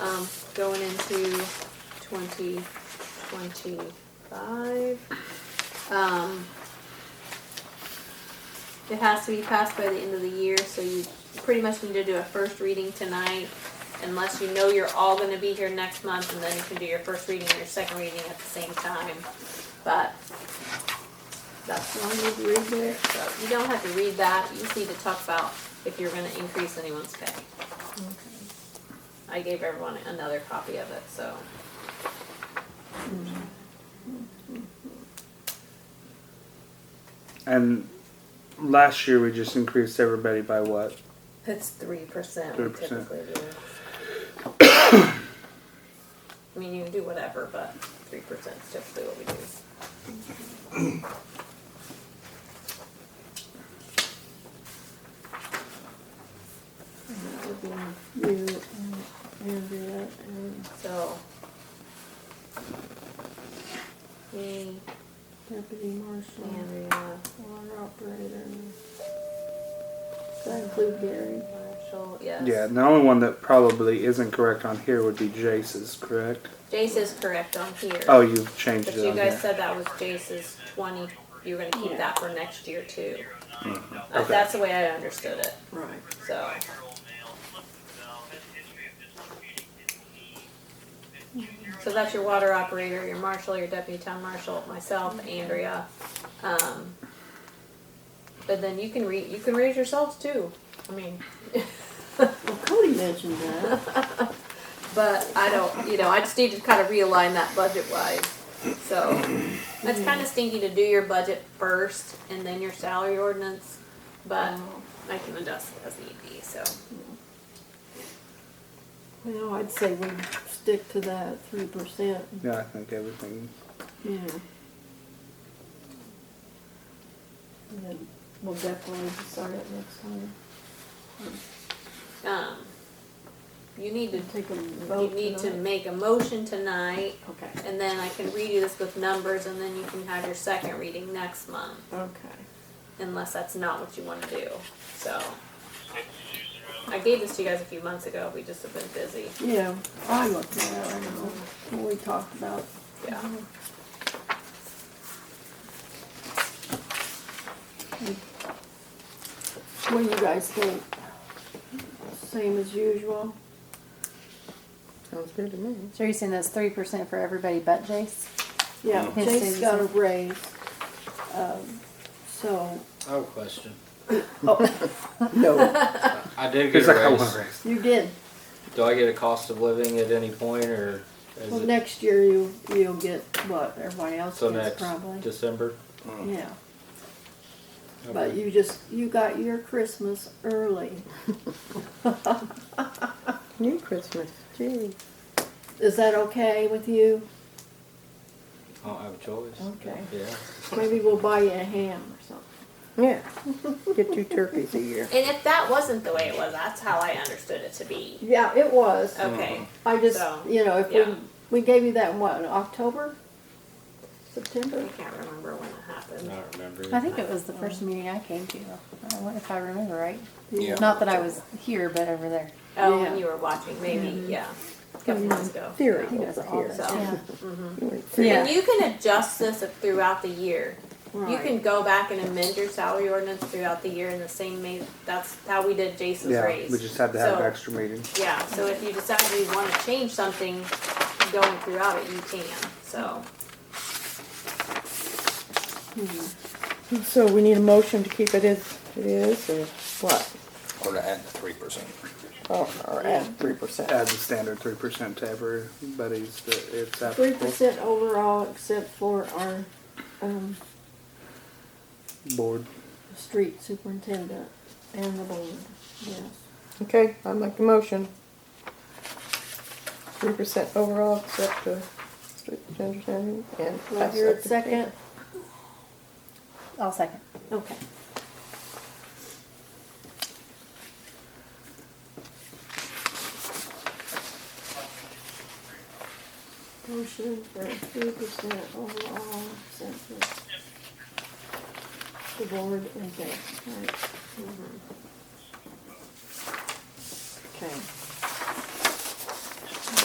Um, going into twenty twenty-five. Um, it has to be passed by the end of the year, so you pretty much need to do a first reading tonight. Unless you know you're all gonna be here next month, and then you can do your first reading and your second reading at the same time, but that's the only need to read there, so you don't have to read that, you just need to talk about if you're gonna increase anyone's pay. I gave everyone another copy of it, so. And last year we just increased everybody by what? It's three percent 3%. do. I mean, you can do whatever, but three percent is typically what we do. And that would be you and Andrea and So. Me, Deputy Marshal, Andrea, water operator. and- Does that include Gary? Marshall, yes. Yeah, and the only one that probably isn't correct on here would be Jace's, correct? Jace is correct on here. Oh, you've changed But it you on guys here. said that was Jace's twenty, you were gonna keep that for next year too. Uh, Mm-hmm. Okay. That's the way I understood it, Right. so. So that's your water operator, your marshal, your deputy town marshal, myself, Andrea. Um, but then you can read, you can raise yourselves too. I mean, Well, Cody mentioned that. but I don't, you know, I just need to kind of realign that budget wise. So that's kind of stinky to do your budget first and then your salary ordinance, but I can adjust as need be, so. Well, I'd say we stick to that three percent, Yeah, I think everything. yeah. And then we'll definitely start it next time. Um, you need to, Take a you vote need to tonight. make a motion tonight Okay, And then I can redo this with numbers and then you can have your second reading next month, okay. unless that's not what you wanna do, so. I gave this to you guys a few months ago, we just have been busy, Yeah, I looked at it, I know, when we talked about. yeah. What do you guys think? Same as usual? Sounds good to me. So you're saying that's three percent for everybody but Jace? Yeah, Yes, Jake's got a Susan. raise, um, so, oh, I have a question. No. I did He's get like, a I want raise. you did. Do I get a cost of living at any point or is Well, it next year you, you'll get what everybody else so gets next probably. December? Yeah, but Okay. you just, you got your Christmas early. New Christmas. Gee. Is that okay with you? I don't have a choice. Okay. Yeah. Maybe we'll buy you a ham or something. Yeah. Get two turkeys a year. And if that wasn't the way it was, that's how I understood it to be, Yeah, it was. okay, I just, So, you know, if yeah. we, we gave you that in what, in October? September? I can't remember when it I happened. don't remember. I think it was the first meeting I came to. I don't know if I remember right. Yeah. Not that I was here, but over there. Oh, when Yeah. you were watching, Mm-hmm. maybe, yeah, a couple months ago. Theory He does over all here. this. Yeah. You ain't theory. And you can adjust this throughout the year, You Right. can go back and amend your salary ordinance throughout the year in the same ma- that's how we did Jason's Yeah, raise. we just had to have So- extra meetings. Yeah, so if you decide you wanna change something going throughout it, you can, so. So we need a motion to keep it as it is or what? Or to add the three percent. Oh, or add three percent. Add the standard three percent to everybody's that it's Three applicable. percent overall, except for our, um, Board. street superintendent and the board, yes. Okay, I'd like the motion. Three percent overall except uh strict gender standard and. Do I hear a second? I'll second. Okay. Motion for three percent overall census. The board and that, right? Okay.